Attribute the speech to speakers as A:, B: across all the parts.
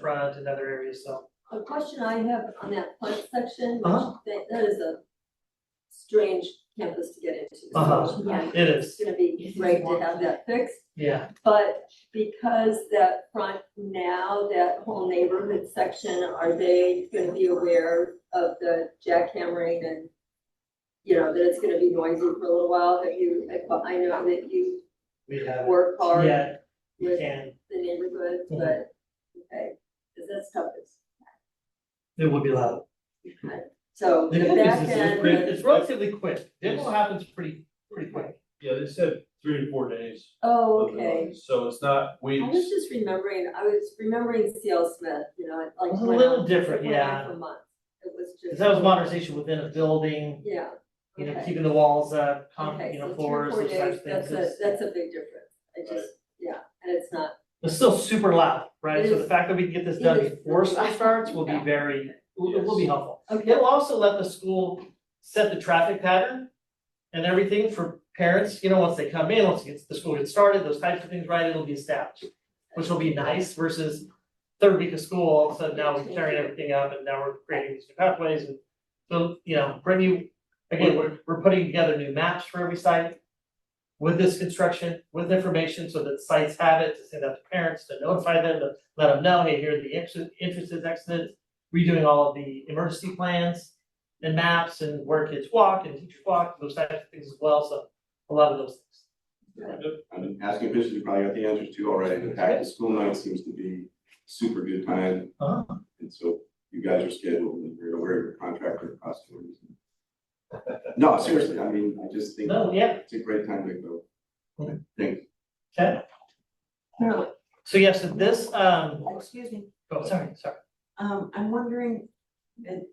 A: front and other areas, so.
B: A question I have on that front section, which
A: Uh-huh.
B: that, that is a strange campus to get into. so,
A: Uh-huh.
B: Yeah,
A: It
B: it's
A: is,
B: gonna be great to have that fixed,
A: yeah,
B: but because that front now, that whole neighborhood section, are they gonna be aware of the jackhammering and you know, that it's gonna be noisy for a little while, that you, I know that you
A: we have,
B: work hard
A: yeah, we
B: with
A: can,
B: the neighborhood,
A: Mhm.
B: but, okay, because that's tough, it's,
A: it will be loud.
B: so
A: The
B: the
A: good
B: back
A: news is it's
B: end.
A: pretty, it's relatively quick, demo happens pretty, pretty quick.
C: Yeah, they said three to four days.
B: Oh,
C: of the
B: okay.
C: notice, So it's not
B: I was
C: weeks,
B: just remembering, I was remembering C.L. Smith, you know, it, like.
A: It's a
B: went
A: little
B: on-
A: different,
B: it went on
A: yeah.
B: For months. It was just.
A: Cause that was a conversation within a building,
B: Yeah.
A: you know,
B: okay.
A: keeping the walls up, com-
B: Okay,
A: you
B: so
A: know,
B: three or
A: floors,
B: four
A: those types of
B: days,
A: things.
B: That's
A: It's-
B: a, that's a big difference. I
C: Right.
B: just, yeah, and it's not,
A: It's still super loud, right?
B: It
A: So the
B: is.
A: fact that we can get this
B: It
A: done
B: is.
A: before school starts will be
B: Yeah.
A: very, will, will be
C: Yes.
A: helpful.
B: okay,
A: It'll also let the school set the traffic pattern and everything for parents, you know, once they come in, once it gets- the school gets started, those types of things, right, it'll be established. Which will be nice versus third week of school, all of a sudden now we're tearing everything up and now we're creating these new pathways and. So, you know, Brittany, again, we're, we're putting together new maps for every site. With this construction, with information so that sites have it, to send out to parents, to notify them, to let them know, hey, here are the exit, entrances, exits redoing all of the emergency plans and maps and where kids walk and teachers walk, those types of things as well, so a lot of those things.
D: I've been asking questions, you probably got the answers to already, the fact that school night seems to be super good time.
A: Uh-huh.
D: And so you guys are scheduled and you're aware of your contractor cost. orders. No, seriously, I mean, I just think
A: No, yeah,
D: it's a great time to go.
A: Okay.
D: Thanks.
A: okay,
E: No,
A: so yes, so this, um,
E: excuse me,
A: oh, sorry, sorry,
E: um, I'm wondering, it-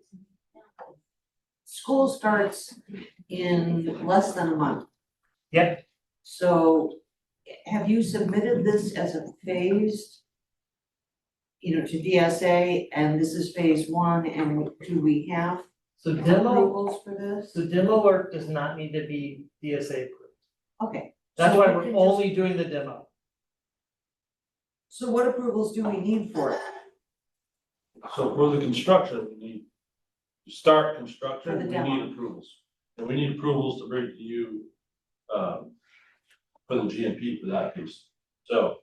E: school starts in less than a month.
A: Yep.
E: So have you submitted this as a phased, you know, to DSA, and this is phase one, and do we have
A: so demo,
E: approvals for this?
A: so demo work does not need to be DSA approved.
E: Okay.
A: That's
E: so
A: why
E: we
A: we're
E: can just-
A: only doing the demo.
E: So what approvals do we need for it,
C: so for the construction, we need, to start
E: For
C: construction,
E: the
C: we
E: demo.
C: need approvals. And we need approvals to bring to you, um, for the GMP for that piece, so.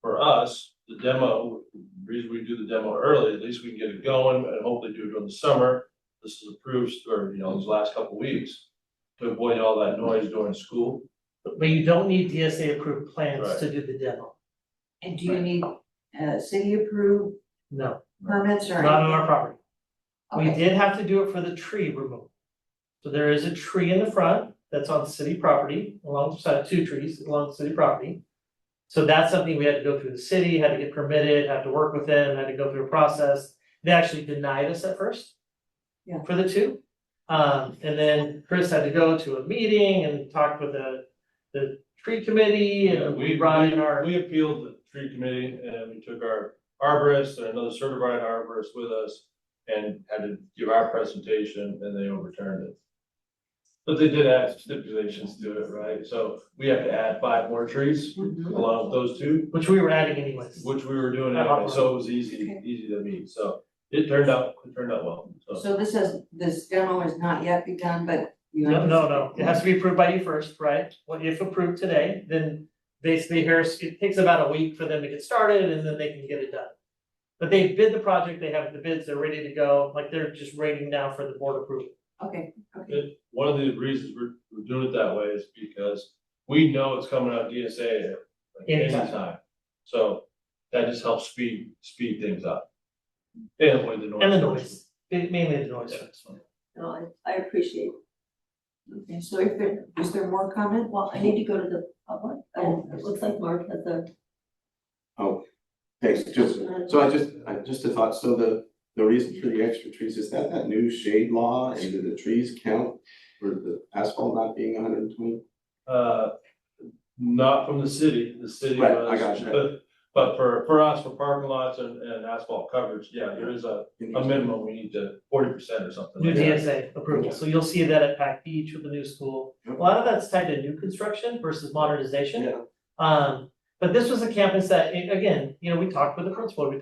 C: For us, the demo, the reason we do the demo early, at least we can get it going, and hopefully do it during the summer. This is approved, or, you know, these last couple of weeks, to avoid all that noise during school.
A: But you don't need DSA approved plans
C: Right.
A: to do the demo,
E: and do you need, uh, city approved
A: no,
E: permits or anything?
A: not on our property. We
E: Okay.
A: did have to do it for the tree removal. So there is a tree in the front that's on city property, alongside two trees along city property. So that's something we had to go through the city, had to get permitted, had to work with them, had to go through a process. They actually denied us at first.
E: Yeah.
A: For the two. Um, and then Chris had to go to a meeting and talk with the, the tree committee
C: Yeah,
A: and we brought in our.
C: We appealed the tree committee and we took our arborist and another certified arborist with us and had to give our presentation and they overturned it. But they did add stipulations to it, right? So we have to add five more trees
E: Mhm.
C: along with those two,
A: Which we were adding anyways.
C: which we were doing anyway, so it was easy,
E: Okay.
C: easy to meet. So it turned out, it turned out well, so.
E: So this is, this demo has not yet begun, but you.
A: No, no, no, it has to be approved by you first, right? Well, if approved today, then basically here's, it takes about a week for them to get started and then they can get it done. But they bid the project, they have the bids, they're ready to go, like they're just waiting now for the board approval.
E: Okay,
C: One of the reasons we're, we're doing it that way is because we know it's coming out DSA at like, any
A: Anytime.
C: time. So that just helps speed, speed things up. And avoid the noise.
A: And the noise, mainly the noise.
B: no, I, I appreciate,
E: okay, so if there, is there more comment?
B: well, I need to go to the public, and it looks like Mark has a.
D: Thanks, just, so I just, I just a thought, so the, the reason for the extra trees, is that that new shade law and do the trees count? For the asphalt not being hundred and twenty?
C: Uh, not from the city, the city
D: Right, I
C: was.
D: got you.
C: but- But for, for us, for parking lots and, and asphalt coverage, yeah, there is a, a minimum, we need to forty percent or something.
A: New
C: like that.
A: DSA approval, so you'll see that at Pack Beach with the new school. A lot of that's tied to new construction versus modernization.
D: Yeah.
A: Um, but this was a campus that, a- again, you know, we talked with the principal, we